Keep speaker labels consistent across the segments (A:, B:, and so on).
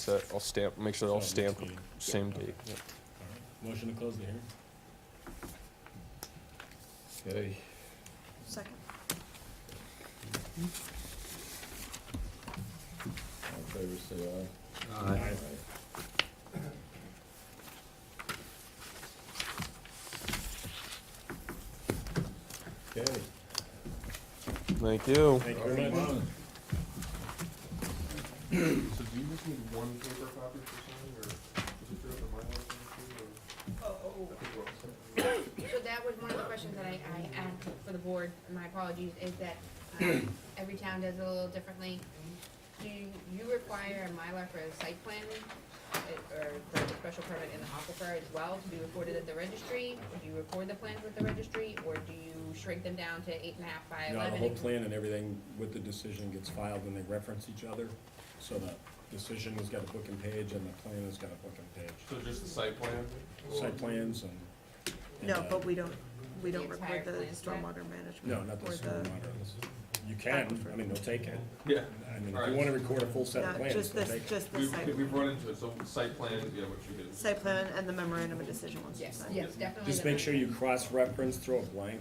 A: So I'll stamp, make sure they're all
B: So next
A: stamped,
B: meeting.
A: same date. Yep.
B: All right. Motion to close the hearing?
C: Okay.
D: Second.
C: All in favor, say aye.
B: Aye.
C: Okay.
A: Thank you.
B: Thank you very much.
E: So do you just need one paper copy for signing, or is it through the Mylar thing too, or? I think we're
D: Oh,
E: all set.
F: So that was one of the questions that I, I asked for the board, and my apologies, is that, um, every town does it a little differently. Do you require a Mylar for a site plan, uh, or for the special permit in the aquifer as well, to be recorded at the registry? Do you record the plans with the registry, or do you shrink them down to eight and a half by
B: Now, the
F: eleven?
B: whole plan and everything with the decision gets filed and they reference each other, so the decision has got a book and page and the plan has got a book and page.
E: So just the site plan?
B: Site plans and. and,
D: No,
B: uh,
D: but we don't, we
F: The
D: don't
F: entire
D: record the
F: plan,
D: stormwater management.
B: No, not the
D: or
B: stormwater. You can, I mean, they'll take it.
E: Yeah.
B: I mean, if you wanna record a full set of
D: No,
B: plans,
D: just
B: they'll
D: this,
B: take it.
D: just the
E: We've,
D: site,
E: we've run into it, so site plan, yeah, what you get.
D: site plan and the memorandum of decision once you
F: Yes,
D: sign.
F: yes, definitely.
B: Just
F: the-
B: make sure you cross-reference, throw a blank,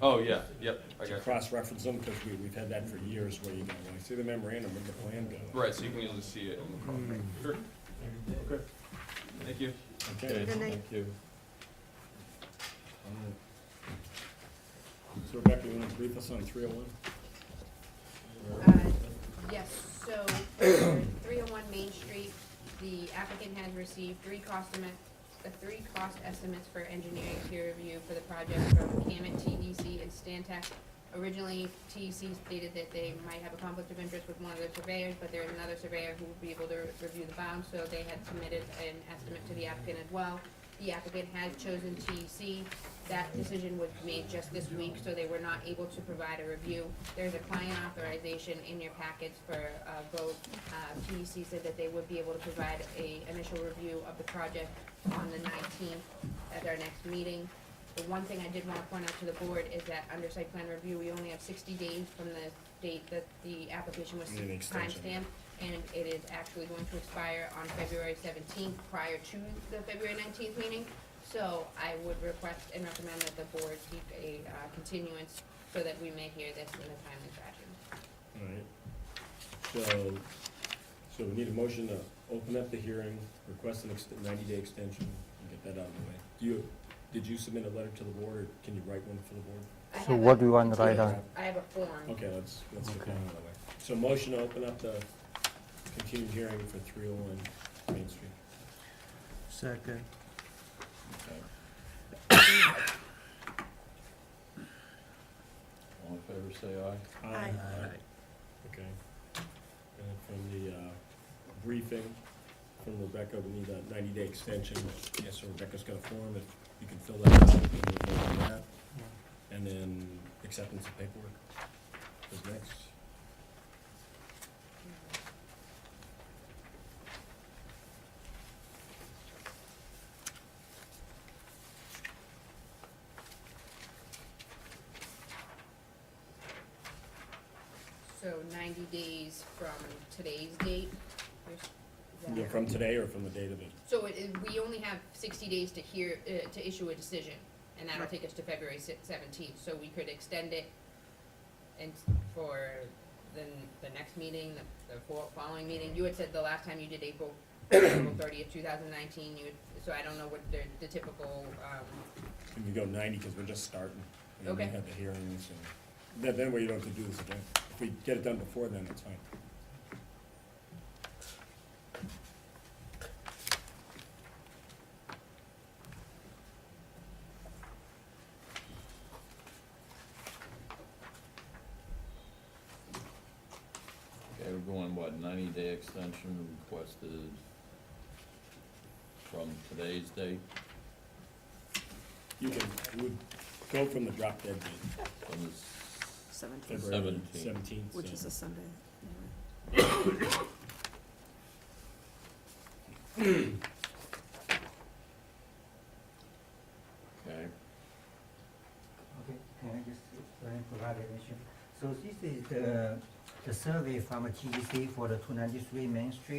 E: Oh, yeah, yep, I
B: to
E: got you.
B: cross-reference them, because we, we've had that for years, where you go, like, see the memorandum, where'd the plan go?
E: Right, so you can usually see it. on
D: Hmm.
E: the call. Sure. Okay. Thank you.
B: Okay,
D: Good night.
C: Thank you.
B: so Rebecca, you wanna brief us on three oh one?
F: Uh, Yes, so for three oh one Main Street, the applicant has received three cost estimate, uh, three cost estimates for engineering peer review for the project from Camet, TDC, and Stantec. Originally, TDC stated that they might have a conflict of interest with one of the surveyors, but there is another surveyor who would be able to re- review the bounds, so they had submitted an estimate to the applicant as well. The applicant has chosen TEC. That decision was made just this week, so they were not able to provide a review. There's a client authorization in your packets for a vote. Uh, TEC said that they would be able to provide a initial review of the project on the nineteenth at our next meeting. The one thing I did wanna point out to the board is that under site plan review, we only have sixty days from the date that the application was
B: Need an extension.
F: timestamped and it is actually going to expire on February seventeenth, prior to the February nineteenth meeting. So I would request and recommend that the board keep a uh, continuance so that we may hear this in a timely fashion.
B: Alright, so, so we need a motion to open up the hearing, request an ext- ninety-day extension, and get that out of the way. Do you, did you submit a letter to the board, or can you write one for the board?
F: I
G: So
F: have
G: what
F: a
G: do you want to write
F: continuance. I have a form.
B: Okay, let's, let's get that
G: Okay.
B: out of the way. So motion to open up the continued hearing for three oh one Main Street.
G: Second.
C: All in favor, say aye.
B: Aye.
D: Aye.
B: Okay. And then from the uh, briefing from Rebecca, we need a ninety-day extension. Yes, so Rebecca's got a form, if you can fill that out, and we'll vote on that. And then acceptance of paperwork is next.
F: So ninety days from today's date. There's- is that-
B: Yeah, From today or from the date of it?
F: So it, it- we only have sixty days to hear, uh, to issue a decision, and that'll
D: Right.
F: take us to February seventeenth, so we could extend it and s- for the, n- the next meeting, the, the fo- following meeting, you had said the last time you did April, April thirtieth, two thousand nineteen, you, had- so I don't know what the, the typical, um,
B: Can we go ninety, because we're just starting. and
F: Okay.
B: We have the hearings and, then, then we don't have to do this again. If we get it done before then, it's fine.
C: Okay, we're going, what, ninety-day extension requested from today's date,
B: You can, you would go from the drop dead date,
C: from the s-
D: Seventeenth,
B: February
C: Seventeenth.
B: seventeenth.
D: which is a Sunday. anyway.
C: okay,
H: Okay, can I just, uh, provide an issue? So this is the, the the survey from TDC for the two ninety-three Main Street.